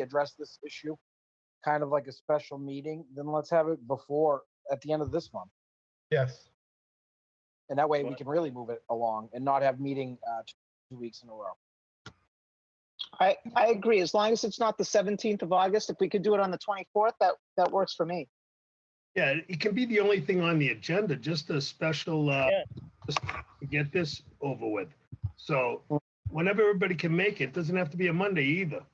address this issue, kind of like a special meeting, then let's have it before, at the end of this month. Yes. And that way we Right. can really move it along and not have meeting, uh, two weeks in a row. I, I agree. As long as it's not the 17th of August, if we could do it on the 24th, that, that works for me. Yeah, it can be the only thing on the agenda, just a special, uh, Yeah. just to get this over with. So whenever everybody can make it, doesn't have to be a Monday either.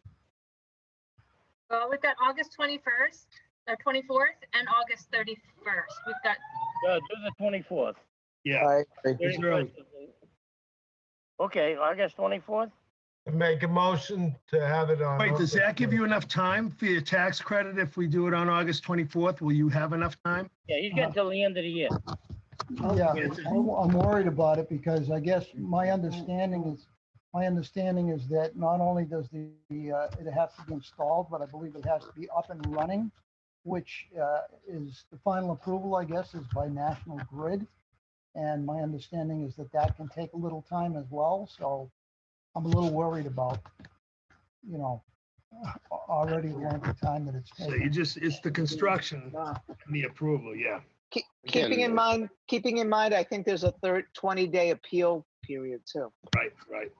Well, we've got August twenty-first, uh, twenty-fourth, and August thirty-first. We've got, Yeah, do the twenty-fourth. Uh, Yeah, I agree. It's early. Okay, August twenty-fourth? Make a motion to have it on. wait, does that give you enough time for your tax credit if we do it on August 24th? Will you have enough time? Yeah, he's got till the end of the year. Yeah, I'm I'm worried about it because I guess my understanding is, my understanding is that not only does the, the, uh, it has to be installed, but I believe it has to be up and running, which uh, is, the final approval, I guess, is by National Grid. And my understanding is that that can take a little time as well, so I'm a little worried about, you know, a- already the length of time that it's So you taking. just, it's the construction and the approval, yeah. Keep- Keeping in mind, keeping in mind, I think there's a third 20-day appeal period too. Right, right.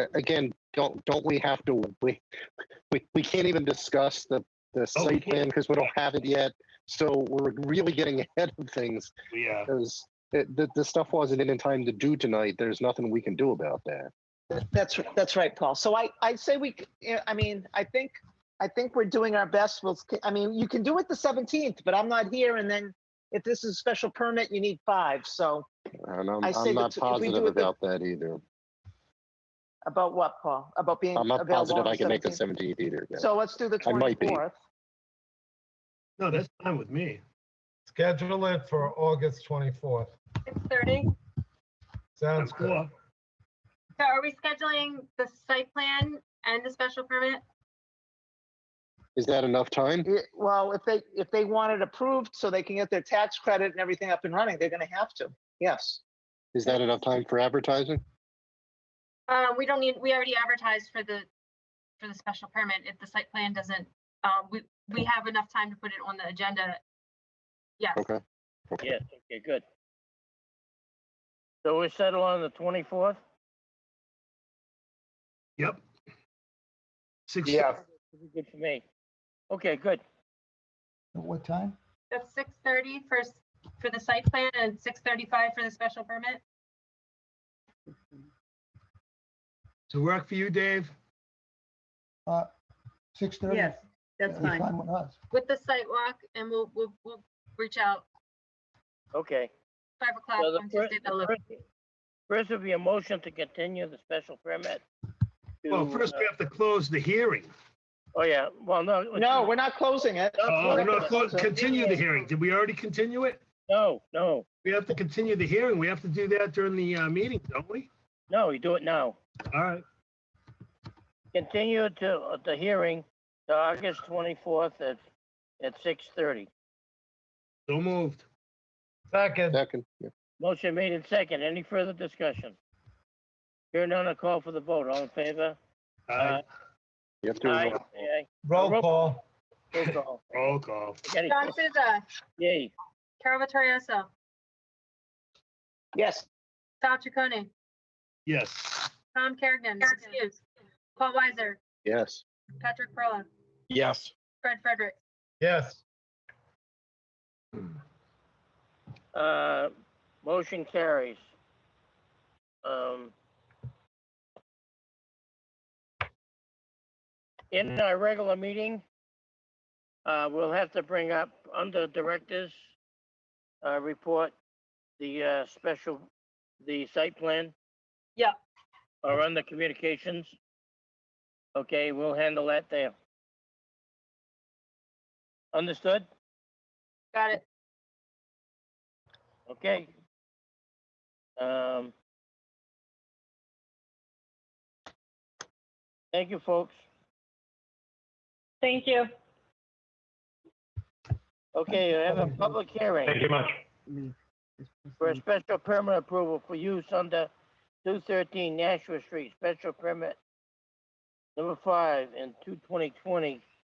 A- Again, don't, don't we have to, we, we, we can't even discuss the, the Oh, we site plan because we don't have it yet. So we're really getting ahead of things We, uh, because the, the stuff wasn't in in time to do tonight. There's nothing we can do about that. That's, that's right, Paul. So I, I say we, c- yeah, I mean, I think, I think we're doing our best. We'll, I mean, you can do it the 17th, but I'm not here. And then if this is a special permit, you need five. So And I'm, I say that I'm not if we positive do it the- about that either. about what, Paul? About being I'm not available on positive I the can make the 17th? 17th either. yeah. So let's do the I might be. 24th. no, that's fine with me. Schedule it for August 24th. six thirty. Sounds That's good. cool. So are we scheduling the site plan and the special permit? Is that enough time? Yeah, Well, if they, if they want it approved so they can get their tax credit and everything up and running, they're gonna have to, yes. Is that enough time for advertising? Uh, we don't need, we already advertised for the, for the special permit. If the site plan doesn't, um, we, we have enough time to put it on the agenda. Yes. Okay. Yes, okay, good. So we settle on the twenty-fourth? Yep. Six. Yeah. Good for me. Okay, good. At what time? That's six thirty for, s- for the site plan and six thirty-five for the special permit. To work for you, Dave? 6:30? Yes, that's It's fine. Fine with us. with the site walk and we'll, we'll, we'll reach out Okay. five o'clock So the on fir- Tuesday, the the 11th. first- First would be a motion to continue the special permit. Well, to, first uh, we have to close the hearing. Oh, yeah, well, no. let's No, do- we're not closing it. Oh, we're we're not not close, closing it. continue the hearing. Did we already continue it? No, no, We have to continue the hearing. We have to do that during the uh, meeting, don't we? no, you do it now. All right. Continue to, uh, the hearing to August twenty-fourth at, at six thirty. So moved. Second, Second. yeah. Motion made in second. Any further discussion? Hearing none, I call for the vote. All in favor? Aye. You have to, Aye. roll Roll- call. Roll call. Roll call. Spaghetti. John Souza, Yay. Carol Vittorioso, Yes, Sal Chaconi, Yes. Tom Kerrigan, excuse, Paul Weiser, yes. Patrick Perla, Yes. Fred Frederick. Yes. Uh, motion carries. Um. In our regular meeting, uh, we'll have to bring up under directors, uh, report, the, uh, special, the site plan. Yeah. Or under communications. Okay, we'll handle that there. Understood? Got it. Okay. Um. Thank you, folks. Thank you. Okay, I have a public hearing you much. for a special permit approval for use under two thirteen Nashua Street, special permit Number five, in two twenty twenty,